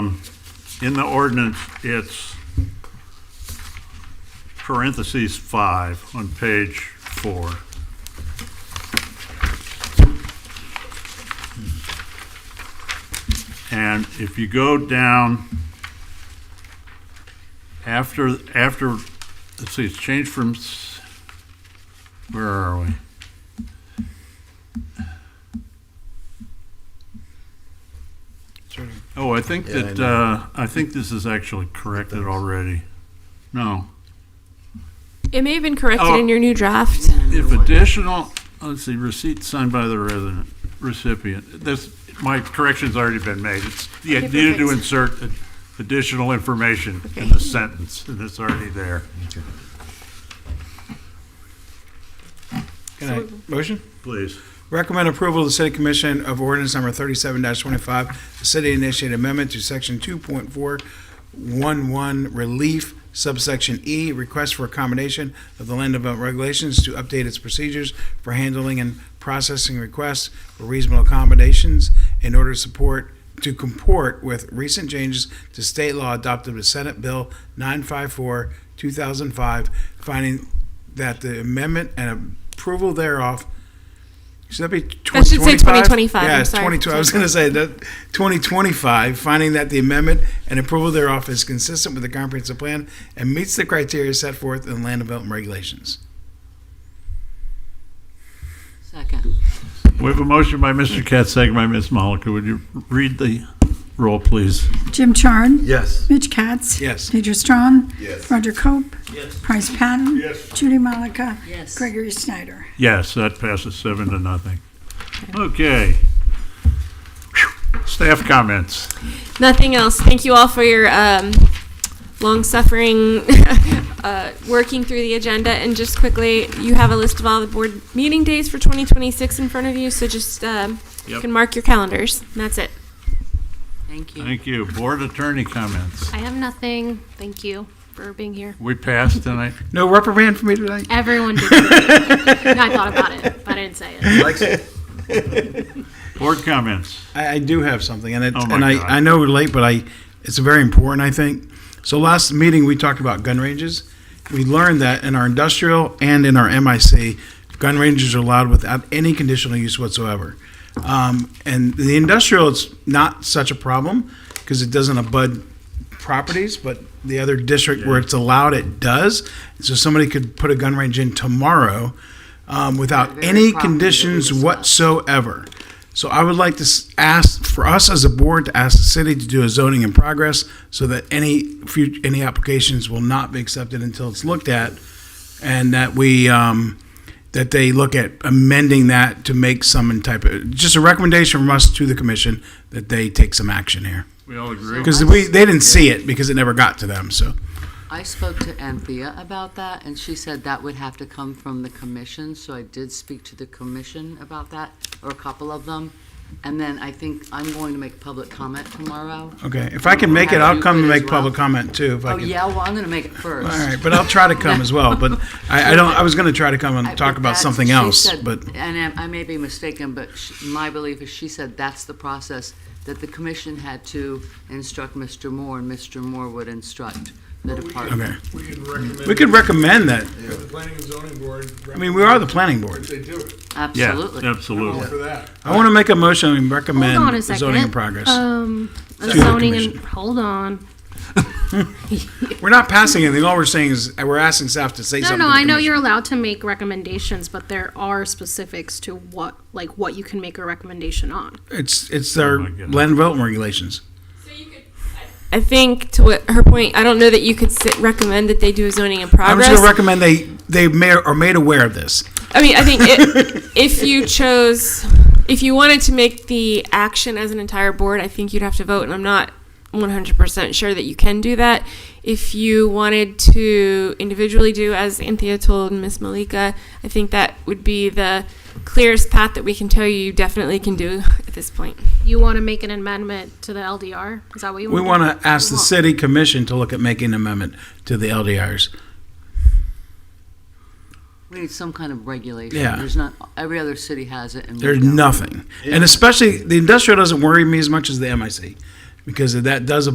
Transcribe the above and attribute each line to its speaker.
Speaker 1: in the ordinance, it's parentheses five on page four. And if you go down after, after, let's see, it's changed from, s- where are we? Oh, I think
Speaker 2: Yeah, I
Speaker 1: that,
Speaker 2: know.
Speaker 1: uh, I think this is actually corrected already. No.
Speaker 3: It may have been corrected
Speaker 1: Oh.
Speaker 3: in your new draft.
Speaker 1: If additional, let's see, receipt signed by the resident recipient, this, my correction's already been made. It's, you
Speaker 3: Okay,
Speaker 1: needed to
Speaker 3: perfect.
Speaker 1: insert additional information in the sentence, and it's already there.
Speaker 4: Can I, motion?
Speaker 1: Please.
Speaker 4: Recommend approval of the City Commission of ordinance number thirty-seven twenty-five, the city initiated amendment to section two point four one one relief subsection E, request for accommodation of the land development regulations to update its procedures for handling and processing requests for reasonable accommodations in order to support, to comport with recent changes to state law adopted with Senate Bill 954, 2005, finding that the amendment and approval thereof, should that be 2025?
Speaker 3: That should say 2025, I'm
Speaker 4: Yes,
Speaker 3: sorry.
Speaker 4: 2025, I was going to say that, 2025, finding that the amendment and approval thereof is consistent with the comprehensive plan and meets the criteria set forth in land development regulations.
Speaker 5: Second.
Speaker 1: We have a motion by Mr. Katz, second by Ms. Malika. Would you read the roll, please?
Speaker 6: Jim Charn.
Speaker 2: Yes.
Speaker 6: Mitch Katz.
Speaker 4: Yes.
Speaker 6: Pedro Strong.
Speaker 2: Yes.
Speaker 6: Roger Cope. Price Patton.
Speaker 1: Yes.
Speaker 6: Judy Malika.
Speaker 5: Yes.
Speaker 6: Gregory Snyder.
Speaker 1: Yes, that passes seven to nothing. Okay. Staff comments.
Speaker 3: Nothing else. Thank you all for your um, long suffering uh, working through the agenda. And just quickly, you have a list of all the board meeting days for 2026 in front of you, so just um, you
Speaker 1: Yep.
Speaker 3: can mark your calendars. And that's it.
Speaker 5: Thank you.
Speaker 1: Thank you. Board attorney comments.
Speaker 7: I have nothing. Thank you for being here.
Speaker 1: We passed tonight.
Speaker 4: No reprimand for me tonight?
Speaker 7: Everyone did. No, I thought about it, but I didn't say it.
Speaker 1: Board comments.
Speaker 4: I, I do have something, and it,
Speaker 1: Oh, my
Speaker 4: and I,
Speaker 1: God.
Speaker 4: I know we're late, but I it's very important, I think. So last meeting we talked about gun ranges. We learned that in our industrial and in our MIC, gun ranges are allowed without any conditional use whatsoever. Um, and the industrial, it's not such a problem because it doesn't abud properties, but the other district where it's allowed, it does. So somebody could put a gun range in tomorrow um, without
Speaker 5: Very
Speaker 4: any
Speaker 5: property that we
Speaker 4: conditions
Speaker 5: discussed.
Speaker 4: whatsoever. So I would like to s- ask, for us as a board, to ask the city to do a zoning in progress so that any future, any applications will not be accepted until it's looked at. And that we, um, that they look at amending that to make some type of, just a recommendation from us to the commission that they take some action here.
Speaker 1: We all agree.
Speaker 4: Because we, they didn't see it because it never got to them, so.
Speaker 5: I spoke to Anthea about that, and she said that would have to come from the commission, so I did speak to the commission about that, or a couple of them. And then I think I'm going to make public comment tomorrow.
Speaker 4: Okay, if I can make it, I'll come and make public comment too, if I
Speaker 5: Oh,
Speaker 4: can.
Speaker 5: yeah, well, I'm gonna make it first.
Speaker 4: All right, but I'll try to come as well, but I, I don't, I was gonna try to come
Speaker 5: I-
Speaker 4: and talk
Speaker 5: but
Speaker 4: about
Speaker 5: that's-
Speaker 4: something
Speaker 5: she
Speaker 4: else,
Speaker 5: said-
Speaker 4: but,
Speaker 5: And I I may be mistaken, but sh- my belief is she said that's the process, that the commission had to instruct Mr. Moore, and Mr. Moore would instruct the department.
Speaker 4: okay.
Speaker 8: We could recommend.
Speaker 4: We could recommend that,
Speaker 8: The planning and zoning board.
Speaker 4: I mean, we are the planning board.
Speaker 8: They do it,
Speaker 1: Yeah,
Speaker 5: Absolutely.
Speaker 8: all
Speaker 1: absolutely.
Speaker 8: for that.
Speaker 4: I wanna make a motion and
Speaker 7: Hold on
Speaker 4: recommend
Speaker 7: a
Speaker 4: the
Speaker 7: second.
Speaker 4: zoning in progress.
Speaker 7: Um, a
Speaker 4: To the
Speaker 7: zoning and,
Speaker 4: commission.
Speaker 7: hold on.
Speaker 4: We're not passing anything, all we're saying is, uh, we're asking staff to say
Speaker 7: No,
Speaker 4: something. to
Speaker 7: no,
Speaker 4: the
Speaker 7: I know
Speaker 4: commission.
Speaker 7: you're allowed to make recommendations, but there are specifics to what, like, what you can make a recommendation on.
Speaker 4: It's, it's their
Speaker 1: Oh my goodness.
Speaker 4: land development regulations.
Speaker 3: I think to what her point, I don't know that you could sit, recommend that they do a zoning in
Speaker 4: I'm
Speaker 3: progress.
Speaker 4: just gonna recommend they, they may, are made aware of this.
Speaker 3: I mean, I think it, if you chose, if you wanted to make the action as an entire board, I think you'd have to vote, and I'm not 100% sure that you can do that. If you wanted to individually do, as Anthea told Miss Malika, I think that would be the clearest path that we can tell you you definitely can do at this point.
Speaker 7: You want to make an amendment to the LDR? Is that what you
Speaker 4: We
Speaker 7: want?
Speaker 4: want to ask the city commission to look at making an amendment to the LDRs.
Speaker 5: We need some kind of regulation.
Speaker 4: Yeah.
Speaker 5: There's not, every other city has it and we
Speaker 4: There's
Speaker 5: don't.
Speaker 4: nothing. And especially, the industrial doesn't worry me as much as the MIC, because that does